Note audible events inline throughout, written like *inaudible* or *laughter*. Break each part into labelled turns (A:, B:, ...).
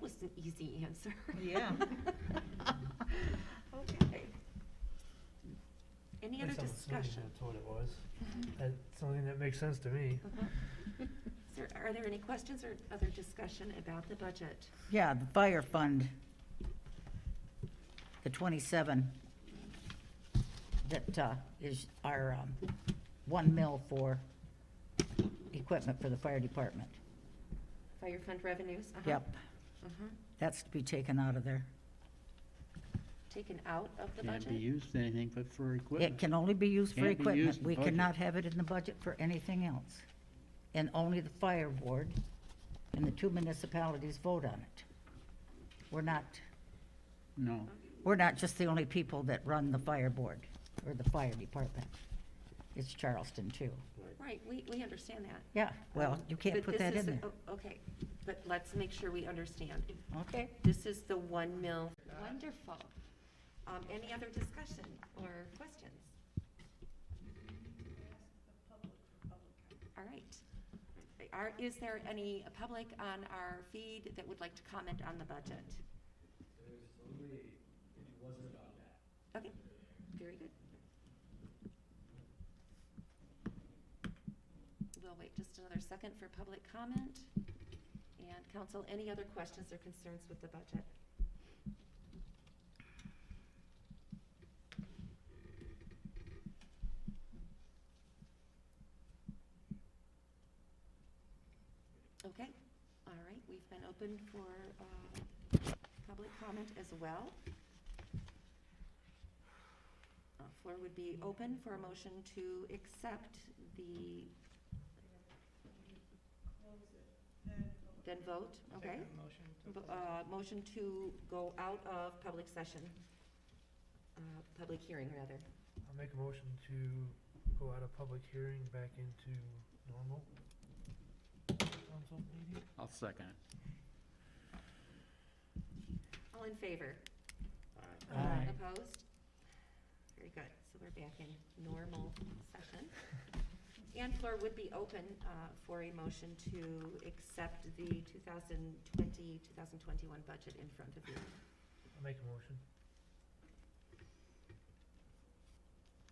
A: was an easy answer.
B: Yeah.
A: *laughs* Okay. Any other
C: Based on the solution,
A: discussion? Mm-hmm.
C: That's what it was. That's something that makes sense to me.
A: Uh-huh. Is there, are there any questions or other discussion about the budget?
B: Yeah, the fire fund, the 27, that uh, is our um, one mil for equipment for the fire department.
A: Fire fund revenues? Uh-huh.
B: Yep,
A: Uh-huh.
B: that's to be taken out of there.
A: Taken out of the
D: Can't be
A: budget?
D: used for anything but for
B: It
D: equipment.
B: can only be used for
D: Can't be used
B: equipment.
D: in the
B: We
D: budget.
B: cannot have it in the budget for anything else. And only the fire board and the two municipalities vote on it. We're not
D: No,
B: we're not just the only people that run the fire board or the fire department. It's Charleston too.
A: Right, we, we understand that.
B: Yeah, well,
A: Um,
B: you can't
A: but
B: put
A: this
B: that in
A: is-
B: there.
A: o- Okay, but let's make sure we understand.
B: Okay.
A: This is the one mil. Wonderful. Um, any other discussion or questions? All right. Are, is there any public on our feed that would like to comment on the budget? Okay, very good. We'll wait just another second for public comment. And council, any other questions or concerns with the budget? Okay, all right, we've been open for uh, public comment as well. Uh, Floor would be open for a motion to accept the. Then vote, okay? Motion to. Motion to go out of public session, uh, public hearing, rather.
C: I'll make a motion to go out of public hearing back into normal. Council meeting?
D: I'll second it.
A: All in favor?
C: Aye.
A: Opposed? Very good, so we're back in normal session. And floor would be open uh, for a motion to accept the 2020, 2021 budget in front of you.
C: I'll make a motion.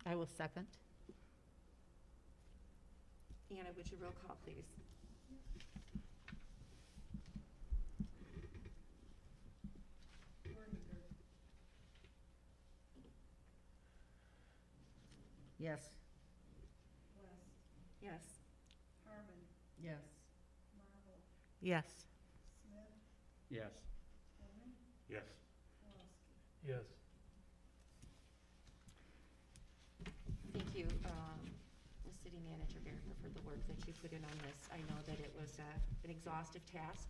E: I will second.
A: Anna, would you roll call, please?
B: Yes.
A: Yes.
E: Yes. Yes.
D: Yes. Yes.
C: Yes.
A: Thank you, um, the city manager Verica, for the work that you put in on this. I know that it was uh, an exhaustive task.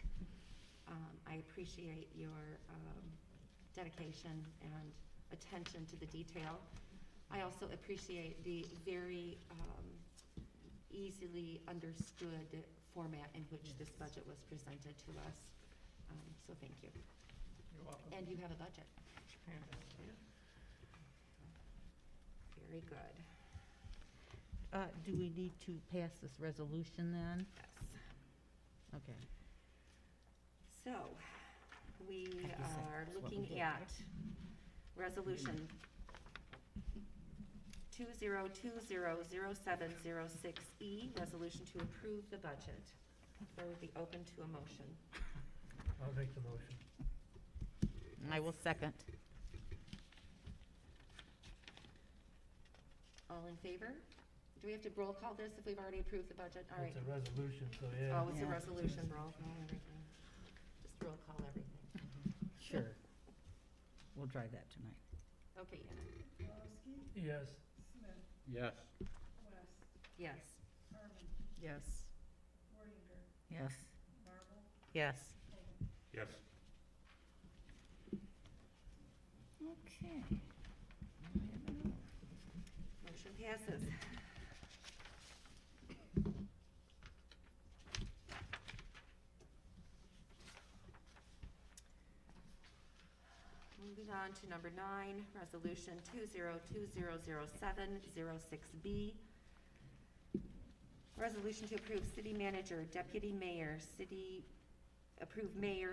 A: Um, I appreciate your um, dedication and attention to the detail. I also appreciate the very um, easily understood format in which this budget was presented to us. Um, So thank you.
C: You're welcome.
A: And you have a budget. Very good.
E: Uh, do we need to pass this resolution then?
A: Yes.
E: Okay.
A: So, we
B: Like you said,
A: are
B: that's what we
A: looking
B: did,
A: at resolution two zero two zero zero seven zero six E, resolution to approve the budget. That would be open to a motion.
C: I'll make the motion.
E: I will second.
A: All in favor? Do we have to roll call this if we've already approved the budget? All right.
C: It's a resolution, so yeah.
A: Oh, it's a
B: Yeah.
A: resolution, roll call everything. Just roll call everything.
B: Sure. We'll try that tonight.
A: Okay, Anna.
C: Yes.
D: Yes.
A: Yes.
E: Yes.
B: Yes.
E: Yes.
D: Yes.
B: Okay.
A: Motion passes. Moving on to number nine, resolution two zero two zero zero seven zero six B. Resolution to approve city manager, deputy mayor, city, approve mayor,